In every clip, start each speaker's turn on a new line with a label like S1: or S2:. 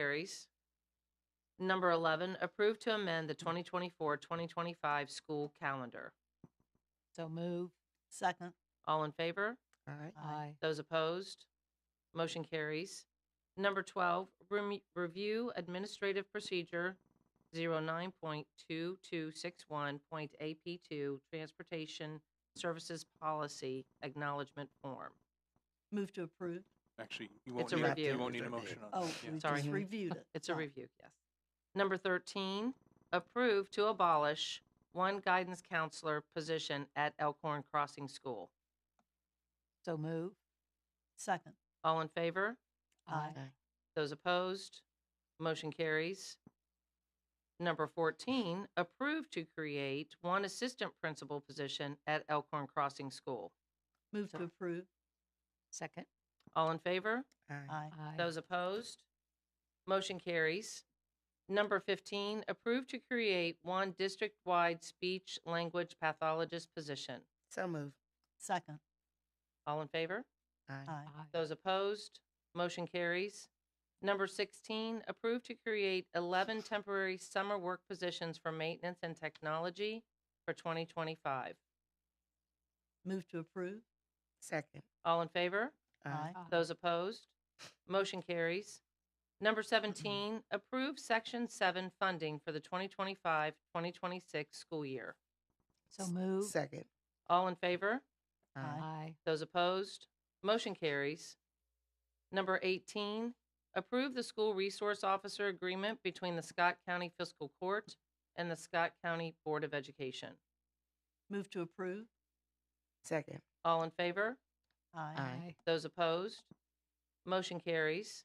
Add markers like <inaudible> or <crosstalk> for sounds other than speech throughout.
S1: carries. Number 11, approve to amend the 2024-2025 school calendar.
S2: So move.
S3: Second.
S1: All in favor?
S3: Aye.
S2: Aye.
S1: Those opposed? Motion carries. Number 12, rem- review administrative procedure 09.2261.AP2 Transportation Services Policy Acknowledgement Form.
S3: Move to approve.
S4: Actually, you won't
S1: It's a
S4: need, a-
S1: review.
S4: you won't need a
S5: It's a
S4: motion on
S3: Oh,
S4: that.
S3: we
S4: yeah.
S1: Sorry.
S3: just reviewed it.
S1: <laughs> It's a
S3: Oh,
S1: review, yes. Number 13, approve to abolish one guidance counselor position at Elkhorn Crossing School.
S2: So move.
S3: Second.
S1: All in favor?
S3: Aye.
S1: Those opposed? Motion carries. Number 14, approve to create one assistant principal position at Elkhorn Crossing School.
S3: Move to approve.
S2: Second.
S1: All in favor?
S3: Aye.
S2: Aye.
S1: Those opposed? Motion carries. Number 15, approve to create one district-wide speech language pathologist position.
S5: So move.
S3: Second.
S1: All in favor?
S5: Aye.
S3: Aye.
S1: Those opposed? Motion carries. Number 16, approve to create 11 temporary summer work positions for maintenance and technology for 2025.
S3: Move to approve.
S5: Second.
S1: All in favor?
S3: Aye.
S1: Those opposed? Motion carries. Number 17, approve Section 7 funding for the 2025-2026 school year.
S2: So move.
S5: Second.
S1: All in favor?
S3: Aye.
S2: Aye.
S1: Those opposed? Motion carries. Number 18, approve the school resource officer agreement between the Scott County Fiscal Court and the Scott County Board of Education.
S3: Move to approve.
S5: Second.
S1: All in favor?
S3: Aye.
S5: Aye.
S1: Those opposed? Motion carries.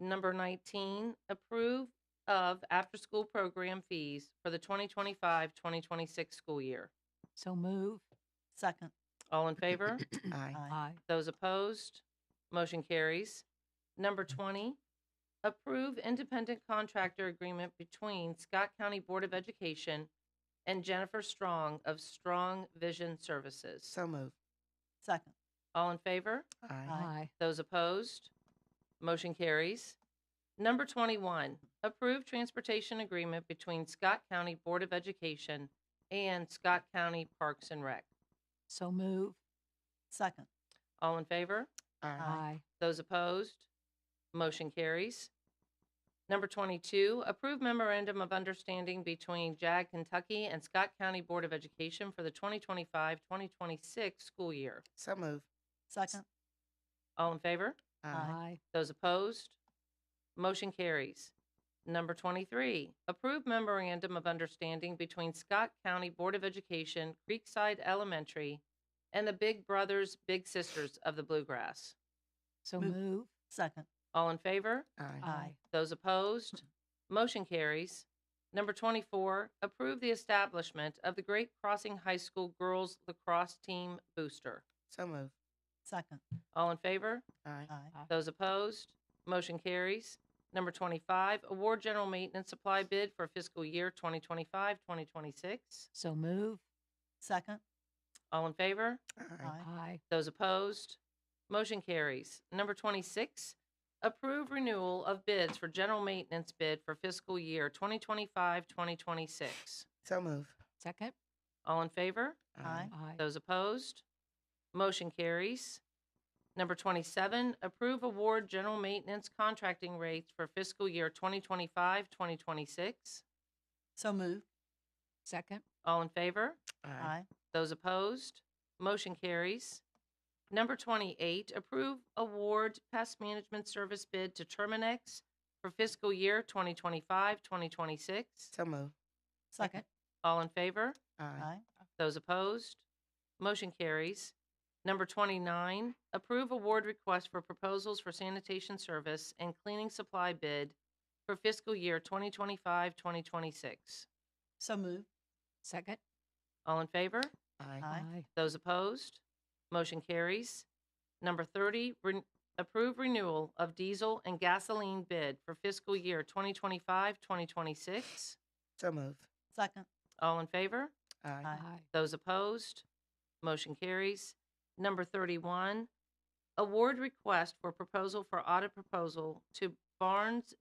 S1: Number 19, approve of after-school program fees for the 2025-2026 school year.
S2: So move.
S3: Second.
S1: All in favor?
S5: Aye.
S2: Aye.
S1: Those opposed? Motion carries. Number 20, approve independent contractor agreement between Scott County Board of Education and Jennifer Strong of Strong Vision Services.
S5: So move.
S3: Second.
S1: All in favor?
S5: Aye.
S2: Aye.
S1: Those opposed? Motion carries. Number 21, approve transportation agreement between Scott County Board of Education and Scott County Parks and Rec.
S2: So move.
S3: Second.
S1: All in favor?
S5: Aye.
S1: Those opposed? Motion carries. Number 22, approve memorandum of understanding between JAG Kentucky and Scott County Board of Education for the 2025-2026 school year.
S5: So move.
S3: Second.
S1: All in favor?
S5: Aye.
S1: Those opposed? Motion carries. Number 23, approve memorandum of understanding between Scott County Board of Education, Creekside Elementary, and the Big Brothers Big Sisters of the Bluegrass.
S2: So
S3: Move.
S2: move.
S3: Second.
S1: All in favor?
S5: Aye.
S3: Aye.
S1: Those opposed? Motion carries. Number 24, approve the establishment of the Great Crossing High School Girls Lacrosse Team Booster.
S5: So move.
S3: Second.
S1: All in favor?
S5: Aye.
S3: Aye.
S1: Those opposed? Motion carries. Number 25, award general maintenance supply bid for fiscal year 2025-2026.
S2: So move.
S3: Second.
S1: All in favor?
S5: Aye.
S3: Aye.
S2: Aye.
S1: Those opposed? Motion carries. Number 26, approve renewal of bids for general maintenance bid for fiscal year 2025-2026.
S5: So move.
S2: Second.
S1: All in favor?
S3: Aye.
S2: Aye.
S1: Those opposed? Motion carries. Number 27, approve award general maintenance contracting rates for fiscal year 2025-2026.
S3: So moved.
S2: Second.
S1: All in favor?
S5: Aye.
S3: Aye.
S1: Those opposed? Motion carries. Number 28, approve award pest management service bid to Terminex for fiscal year 2025-2026.
S5: So move.
S3: Second.
S1: All in favor?
S5: Aye.
S3: Aye.
S1: Those opposed? Motion carries. Number 29, approve award request for proposals for sanitation service and cleaning supply bid for fiscal year 2025-2026.
S3: So moved.
S2: Second.
S1: All in favor?
S5: Aye.
S3: Aye.
S1: Those opposed? Motion carries. Number 30, ren- approve renewal of diesel and gasoline bid for fiscal year 2025-2026.
S5: So move.
S3: Second.
S1: All in favor?
S5: Aye.
S2: Aye.
S1: Those opposed? Motion carries. Number 31, award request for proposal for audit proposal to Barnes